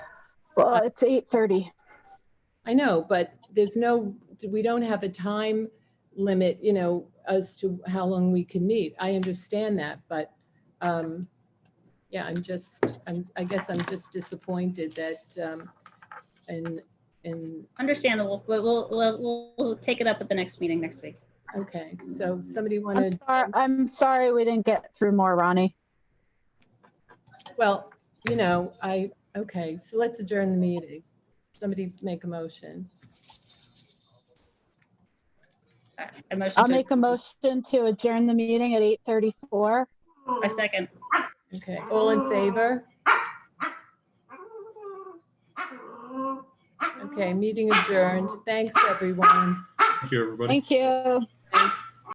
Well, it's eight thirty. I know, but there's no, we don't have a time limit, you know, as to how long we can meet. I understand that, but, um, yeah, I'm just, I'm, I guess I'm just disappointed that, um, and, and, Understandable. We'll, we'll, we'll, we'll take it up at the next meeting next week. okay, so somebody I'm wanted, sorry, I'm sorry we didn't get through more, Ronnie. well, you know, I, okay, so let's adjourn the meeting. Somebody make a motion. I- I motion I'll to- make a motion to adjourn the meeting at eight thirty-four. I second. Okay, all in favor? Okay, meeting adjourned. Thanks, everyone. Thank you, everybody. Thank you. Thanks.